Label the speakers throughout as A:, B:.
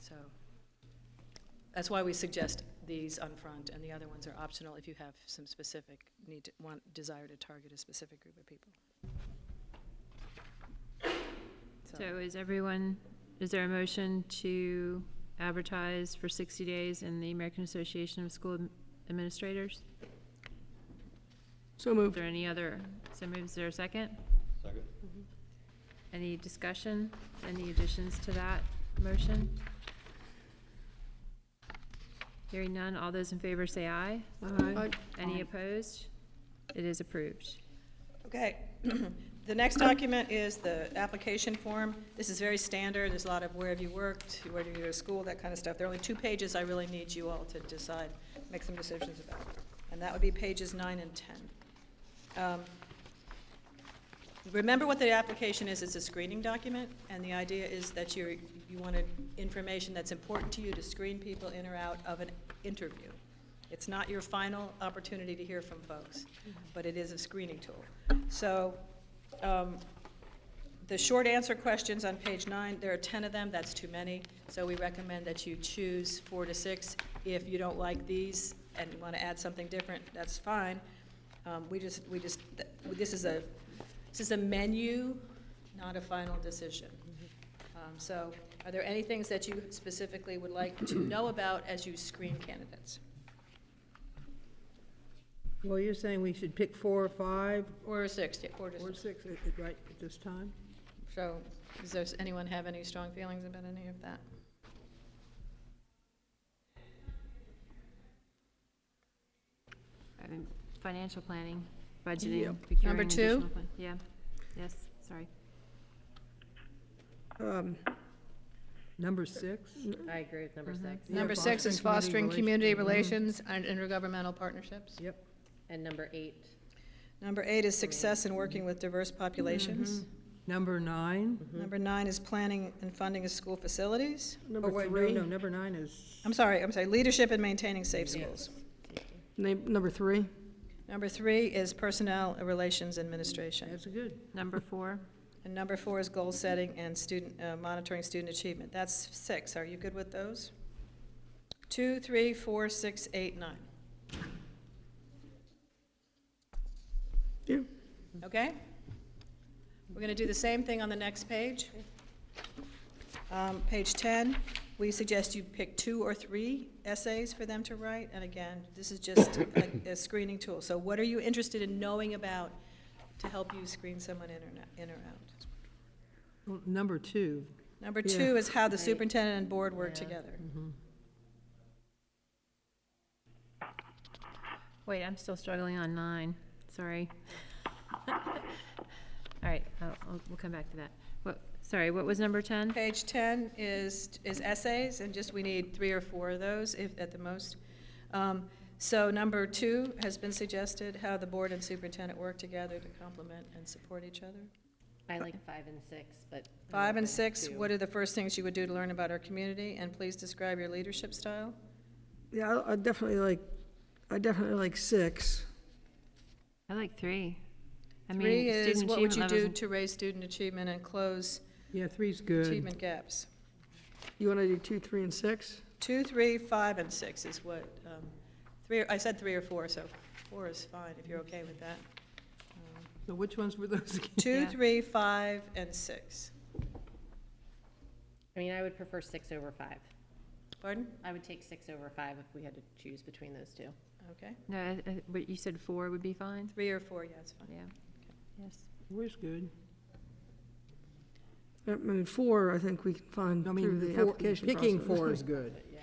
A: So that's why we suggest these on front, and the other ones are optional if you have some specific need, to- want, desire to target a specific group of people. So,
B: So is everyone, is there a motion to advertise for 60 days in the American Association of School Administrators?
C: So
B: Is
C: moved.
B: there any other, so moves, is there a second?
D: Second.
B: Any discussion? Any additions to that motion? Hearing none, all those in favor say aye.
C: Aye.
B: Any opposed? It is approved.
A: okay, the next document is the application form. This is very standard, there's a lot of where have you worked, where do you go to school, that kind of stuff. There are only two pages I really need you all to decide, make some decisions about, and that would be pages nine and 10. Um, Remember what the application is, it's a screening document, and the idea is that you, you wanted information that's important to you to screen people in or out of an interview. It's not your final opportunity to hear from folks, but it is a screening tool. So, um, the short answer questions on page nine, there are 10 of them, that's too many, so we recommend that you choose four to six. If you don't like these and you want to add something different, that's fine. Um, We just, we just, th- this is a, this is a menu, not a final decision. Um, So are there any things that you specifically would like to know about as you screen candidates?
C: Well, you're saying we should pick four or five
A: Or six, yeah, or
C: or
A: just,
C: six, at- at- right, at this time?
A: so, does those- anyone have any strong feelings about any of that?
B: Um, Financial planning, budgeting,
C: Yep.
B: procuring.
A: Number two?
B: additional fun- Yeah, yes, sorry.
C: Um, Number six?
E: I agree with number six.
C: Yeah,
A: Number six is fostering
C: fostering
A: community
C: community
A: relations Mm-hmm. and intergovernmental partnerships.
C: Yep.
E: And number eight,
A: Number eight is success in working with diverse populations.
C: Number nine?
A: Number nine is planning and funding of school facilities.
C: Oh, wait, no, no, number nine is.
A: I'm sorry, I'm sorry, leadership in maintaining safe schools.
C: Number three?
A: Number three is personnel relations administration.
C: That's good.
B: Number four,
A: And number four is goal setting and student, uh, monitoring student achievement. That's six. Are you good with those? Two, three, four, six, eight, nine.
C: Yeah.
A: Okay? We're going to do the same thing on the next page. Um, Page 10, we suggest you pick two or three essays for them to write, and again, this is just a- a screening tool. So what are you interested in knowing about to help you screen someone in or not- in or out?
C: Well, Number two,
A: Number
C: Yeah.
A: two is how the
E: Right.
A: superintendent and board work
E: Yeah.
A: together.
B: Mm-hmm. wait, I'm still struggling on nine, sorry. All right, I'll- I'll- we'll come back to that. What, sorry, what was number 10?
A: Page 10 is, is essays, and just, we need three or four of those, if, at the most. Um, So number two has been suggested, how the board and superintendent work together to complement and support each other.
E: I like five and six, but. I'm
A: Five and
E: open
A: six,
E: to-
A: what are the first things you would do to learn about our community? And please describe your leadership style.
F: Yeah, I- I definitely like, I definitely like six.
B: I like three. I mean,
A: Three is,
B: student
A: what would you
B: achievement
A: do
B: levels
A: to raise student achievement and close
C: yeah, three's good.
A: achievement gaps?
F: You want to do two, three, and six?
A: Two, three, five, and six is what, um, three, I said three or four, so four is fine, if you're okay with that. Um,
C: So which ones were those again?
A: Two,
B: Yeah.
A: three, five, and six.
E: I mean, I would prefer six over five.
A: Pardon?
E: I would take six over five if we had to choose between those two.
A: Okay.
B: No, I- I- but you said four would be fine?
A: Three or four, yeah, it's fine.
B: Yeah, yes.
C: Four's good.
F: I mean, four, I think we can find
C: I
F: through
C: mean,
F: the
C: four-
F: application process.
C: Picking four is good,
E: But yeah,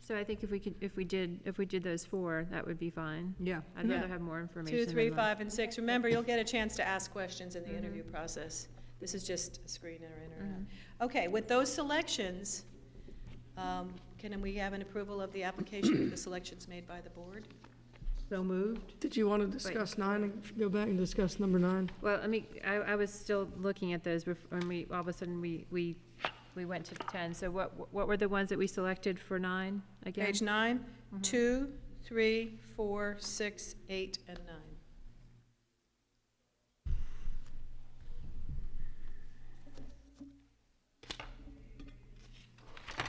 B: So I think if we could, if we did, if we did those four, that would be fine.
C: yeah.
B: I'd rather
A: Yeah.
B: have more information. Mm-hmm.
A: Two,
B: than
A: three,
B: less.
A: five, and six. Remember, you'll get a chance to ask questions in the interview process. This is just a screen in or in or
B: Mm-hmm.
A: out. Okay, with those selections, um, can we have an approval of the application with the selections made by the board?
C: So moved?
F: Did you want to discuss nine and go back and discuss number nine?
B: Well, I mean, I, I was still looking at those bef- when we, all of a sudden, we, we, we went to ten. So what, what were the ones that we selected for nine again? Mm-hmm.
A: Page nine, two, three, four, six, eight, and nine.